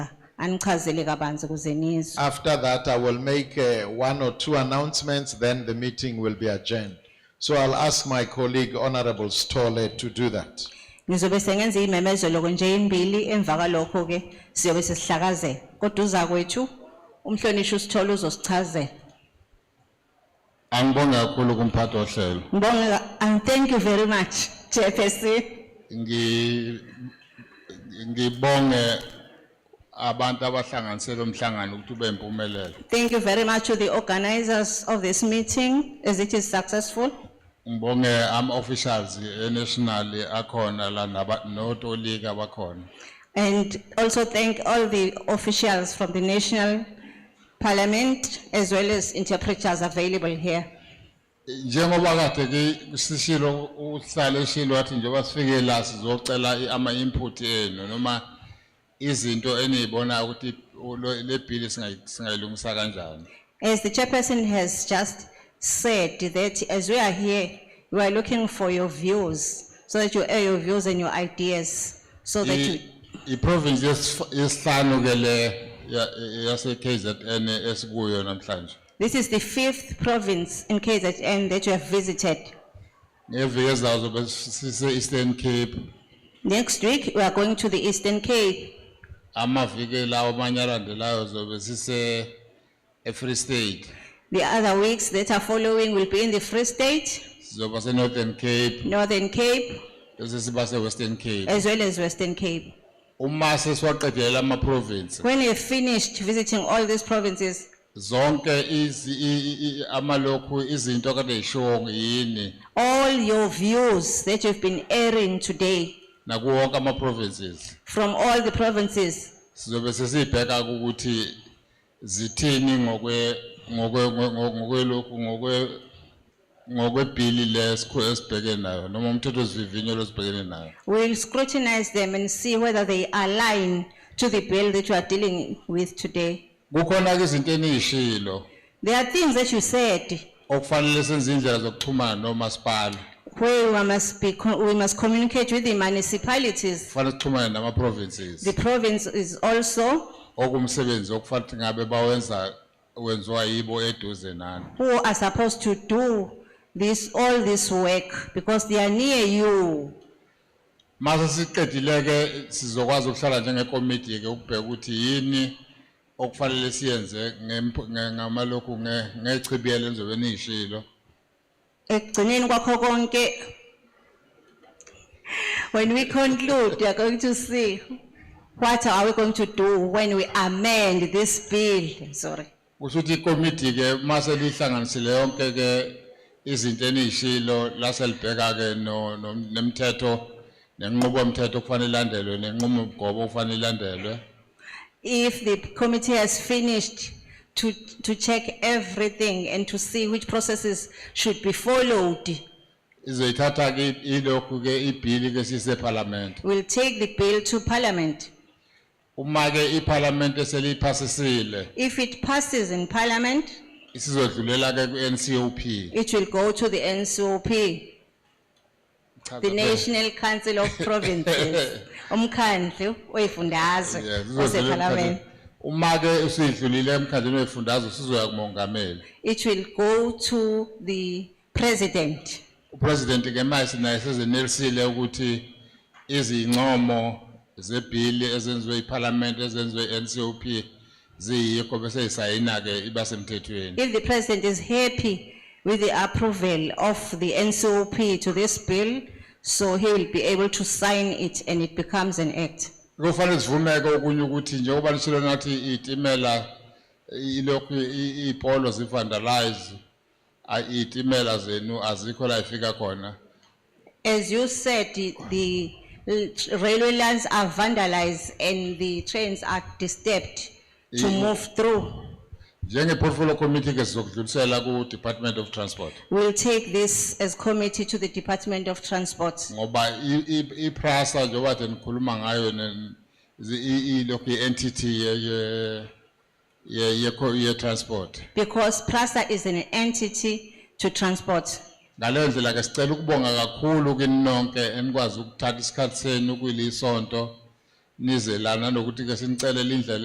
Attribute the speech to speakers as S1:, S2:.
S1: anichazele kabanzi ukuze nizwe.
S2: After that, I will make uh, one or two announcements, then the meeting will be adjourned. So I'll ask my colleague Honorable Stoller to do that.
S1: Ngizobe sengenza imemezelo nje imbili emva kwalokho ke siyobe sesihlakazela. Kodwa uza kwethu umhlonishwa usithola uzosichazela.
S3: Angibonge kakhulu kumphathi ohlelo.
S1: Ngibonge ka- and thank you very much Chairperson.
S3: Ngi ngibonge abantu abahlanganisela umhlangano ukuthi ube impumelelo.
S1: Thank you very much to the organizers of this meeting as it is successful.
S3: Ngibonge ama officials enational akhona la naba notolika bakhona.
S1: And also thank all the officials from the national parliament as well as interpreters available here.
S3: Njengoba kade ke sishilo uhlale eshilo wathi njengoba sifike la sizocela ama input enu noma izinto enizibona ukuthi lo- le bill singayi- singayilungisa kanjani.
S1: As the chairperson has just said that as we are here, we are looking for your views, so that you air your views and your ideas, so that you,
S3: I province yesihlanu ke le ya- yase KZN esikuyo namhlanje.
S1: this is the fifth province in KZN that you have visited.
S3: Ngeviki ezayo zobe sise Eastern Cape
S1: Next week, we are going to the Eastern Cape,
S3: amaviki lawo amanye alandelayo zobe sise eFree State.
S1: the other weeks that are following will be in the Free State,
S3: Sizoba seNorthern Cape
S1: Northern Cape,
S3: bese siba seWestern Cape.
S1: as well as Western Cape.
S3: Uma sesiwaqedela ama province
S1: When you've finished visiting all these provinces,
S3: zonke izi i- i- i- amalokhu izinto akade yishongo yini
S1: all your views that you've been airing today
S3: nakuwo wonke ama provinces.
S1: from all the provinces,
S3: sizobe sesibheka ukuthi zithini ngokwe ngokwe ngokwe- ngokwelokhu ngokwe ngokwebhili lesikho esibhekene nayo noma umthetho sivivinyo losibhekene nayo
S1: we'll scrutinize them and see whether they align to the bill that you are dealing with today.
S3: kukhona ke izinto eniyishilo
S1: There are things that you said
S3: okufanele senze indlela zokuxhumana nomasipala
S1: where we must be, co- we must communicate with the municipalities.
S3: kufanele sixhumane nama-provinces
S1: The province is also
S3: okumsebenzi okufanele ukuthi ngabe bawenza wenziwa yibo eduze nani
S1: who are supposed to do this, all this work because they are near you.
S3: Mase siqedileke sizokwazi ukuhlala njengekomiti ke ukubheka ukuthi yini okufanele siyenze ngemp- nge- ngamalokhu nge- ngechibiyelo enzobe niyishilo.
S1: ekugcineni kwakho konke when we conclude we are going to see what are we going to do when we amend this bill sorry
S3: Kusho ukuthi ikomiti ke mase lihlanganisile yonke ke izinto eniyishilo laselibheka ke no- no- nemithetho nenqubomthetho okufanele ilandelwe nenqumo mgobo okufanele ilandelwe.
S1: if the committee has finished to to check everything and to see which processes should be followed
S3: Izoyithatha ke ilokhu ke ibhili ke sise parliament.
S1: we'll take the bill to parliament
S3: Uma ke iparliament seliphasisile
S1: if it passes in parliament
S3: isizodlulela ke ku-NCOP.
S1: it will go to the ncop
S3: Cha,
S1: The
S3: cha,
S1: National Council of Provinces, umkhandlu
S3: cha.
S1: wey'fundazwe
S3: Yes, isizodlulela
S1: osephalamende.
S3: emkhandlwini. Uma ke usidlulile emkhandleni wefundazwe sizoya kumongameli.
S1: It will go to the president.
S3: Upresident ke manje naye sezenelisile ukuthi izincomo zebhili ezenziwe iParliament ezenziwe NCOP ziyikho bese isayina ke iba semthethweni.
S1: If the president is happy with the approval of the NCOP to this bill, so he will be able to sign it and it becomes an act.
S3: Kufanele sivumeke okunye ukuthi njengoba nishilo nathi itimela ilokhu i- ipolo zivandalize ay- itimela zenu azikho la ifika khona.
S1: As you said, the- the railway lines are vandalized and the trains are disturbed to
S3: Yeah.
S1: move through.
S3: Njenge portfolio committee ke sizokudlulisela ku Department of Transport
S1: We'll take this as committee to the Department of Transport.
S3: ngoba i- i- iPrasa njengoba nje nikhuluma ngayo ne zi- i- i- lokhu entity ye ye ye ye, co- ye transport
S1: Because PRASA is an entity to transport.
S3: ngalendlela ke sicela ukubonga kakhulu kini nonke enikwazi ukuthatha isikhatsi senu kulisonto nizelana nokuthi ke sinicela indlela